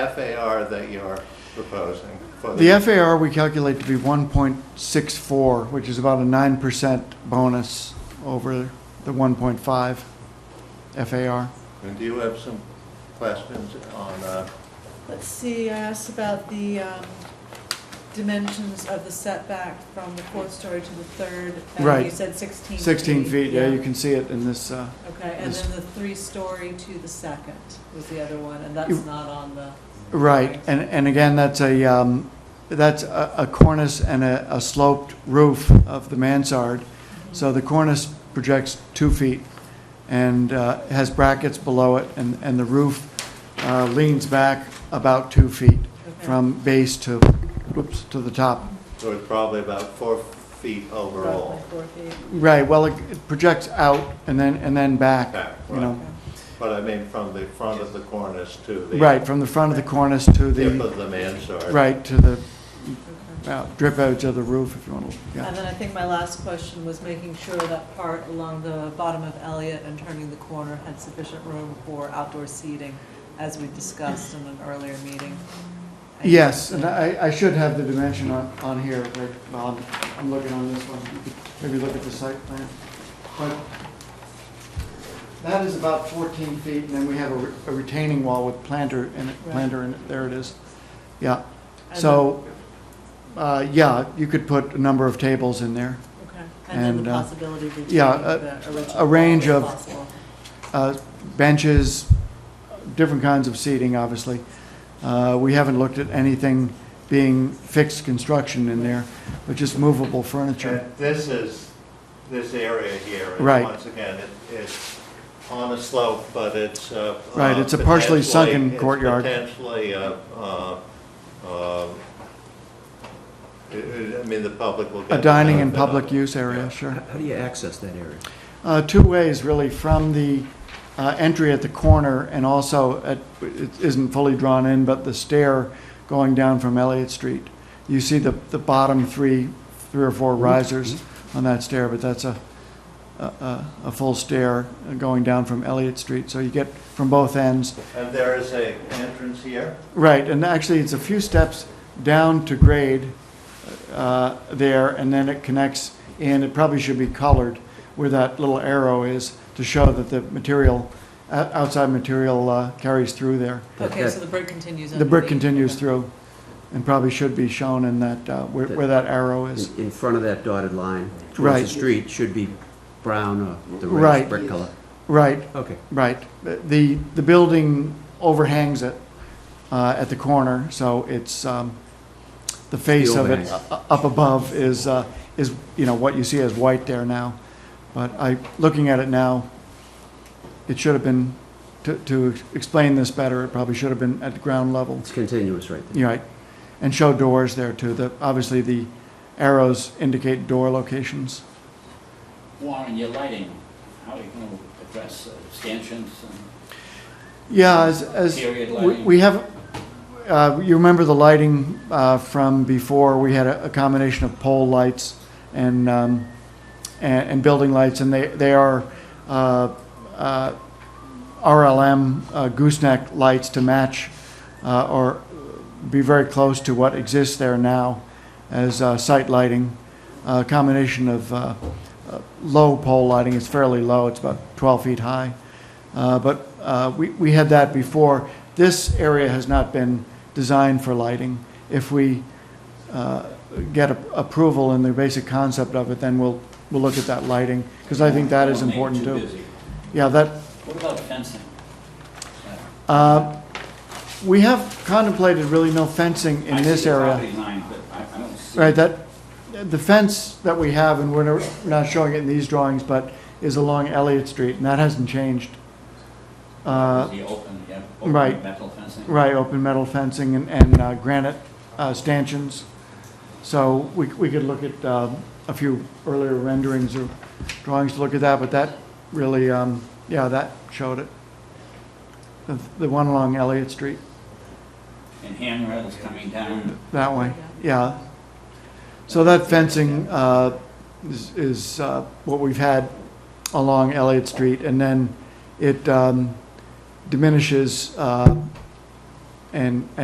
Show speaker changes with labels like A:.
A: FAR that you're proposing for the,
B: The FAR we calculate to be 1.64, which is about a 9% bonus over the 1.5 FAR.
A: and do you have some questions on, uh,
C: Let's see, I asked about the um, dimensions of the setback from the fourth story to the third. And you
B: Right.
C: said 16 feet.
B: 16 feet, yeah, you can see it in this, uh,
C: Okay, and
B: Yes.
C: then the three-story to the second was the other one, and
B: You-
C: that's not on the,
B: right. And, and again, that's a, um, that's a a cornice and a a sloped roof of the mansard. So the cornice projects two feet and uh, has brackets below it, and, and the roof uh, leans back about two feet
C: Okay.
B: from base to, whoops, to the top.
A: so it's probably about four feet
C: roughly
A: overall?
C: four feet.
B: Right, well, it it projects out and then, and then back,
A: Back,
B: you
A: right.
B: know.
A: But I mean, from the front of the cornice to the
B: Right, from the front of the cornice to
A: tip
B: the,
A: of the mansard?
B: right, to the
C: Okay.
B: uh, drip edge of the roof, if you want to,
C: And
B: yeah.
C: then I think my last question was making sure that part along the bottom of Elliott and turning the corner had sufficient room for outdoor seating, as we discussed in an earlier meeting.
B: Yes, and I, I should have the dimension on, on here, right, well, I'm, I'm looking on this one, You could maybe look at the site plan. But that is about fourteen feet, and then we have a re- a retaining wall with planter in it,
C: Right.
B: planter in it, there it is. Yeah,
C: And
B: so, uh, yeah, you could put a number of tables in there.
C: Okay, and then
B: And,
C: the
B: uh,
C: possibility of retaining
B: yeah,
C: the original.
B: a range
C: wall
B: of-
C: if possible.
B: uh, benches, different kinds of seating, obviously. Uh, We haven't looked at anything being fixed construction in there, but just movable furniture.
A: And this is, this area here is,
B: Right.
A: once again, it- it's on a slope, but it's. uh,
B: Right,
A: uh,
B: it's a partially
A: potentially-
B: sunken
A: it's
B: courtyard.
A: Potentially, uh, uh, uh, it- it- I mean, the public will get.
B: A dining and
A: the benefit
B: public
A: of it.
B: use area, sure.
D: How do you access that area?
B: Uh, Two ways, really, from the uh, entry at the corner and also at, it isn't fully drawn in, but the stair going down from Elliott Street. You see the, the bottom three, three or four risers on that stair, but that's a, a- a, a full stair going down from Elliott Street. So you get from both ends.
A: And there is a entrance here?
B: Right, and actually, it's a few steps down to grade uh, there, and then it connects in, it probably should be colored where that little arrow is to show that the material, o- outside material uh, carries through there.
C: Okay, so the brick continues
B: The brick
C: underneath.
B: continues
C: Okay.
B: through, and probably should be shown in that, uh, where where that arrow is.
D: In- In front of that dotted line towards
B: Right.
D: the street should be brown or the
B: Right.
D: red brick color.
B: Right,
D: Okay.
B: right. The, the building overhangs it uh, at the corner, so it's, um, the face of it
D: overhang.
B: u- up above is, uh, is, you know, what you see as white there now. But I, looking at it now, it should have been, to, to explain this better, it probably should have been at the ground level.
D: It's continuous right there.
B: You're right. And show doors there too. The, obviously, the arrows indicate door locations.
E: Warren, your lighting, how are you going to address uh, stanchions and
B: Yeah, as, as,
E: Period
B: we-
E: lighting.
B: we have, uh, you remember the lighting uh, from before, we had a a combination of pole lights and, um, and and building lights, and they, they are uh, uh, RLM uh, gooseneck lights to match uh, or be very close to what exists there now as uh, site lighting, a combination of uh, uh, low pole lighting, it's fairly low, it's about 12 feet high, Uh, but uh, we we had that before. This area has not been designed for lighting. If we uh, get a- approval in the basic concept of it, then we'll, we'll look at that lighting, because I think that is
E: Don't make it
B: important
E: too
B: too.
E: busy.
B: Yeah, that,
E: What about fencing?
B: uh, we have contemplated really no fencing in this
E: I see
B: area.
E: the property line, but I I don't see.
B: Right, that, the fence that we have, and we're no- not showing it in these drawings, but is along Elliott Street, and that hasn't changed. Uh,
E: The open, yeah, open
B: right.
E: metal fencing.
B: Right, open metal fencing and- and uh, granite uh, stanchions. So we we could look at uh, a few earlier renderings or drawings to look at that, but that really, um, yeah, that showed it. The- The one along Elliott Street,
E: And handrails coming down.
B: that way, yeah. So that fencing uh, is- is uh, what we've had along Elliott Street, and then it um, diminishes uh, and,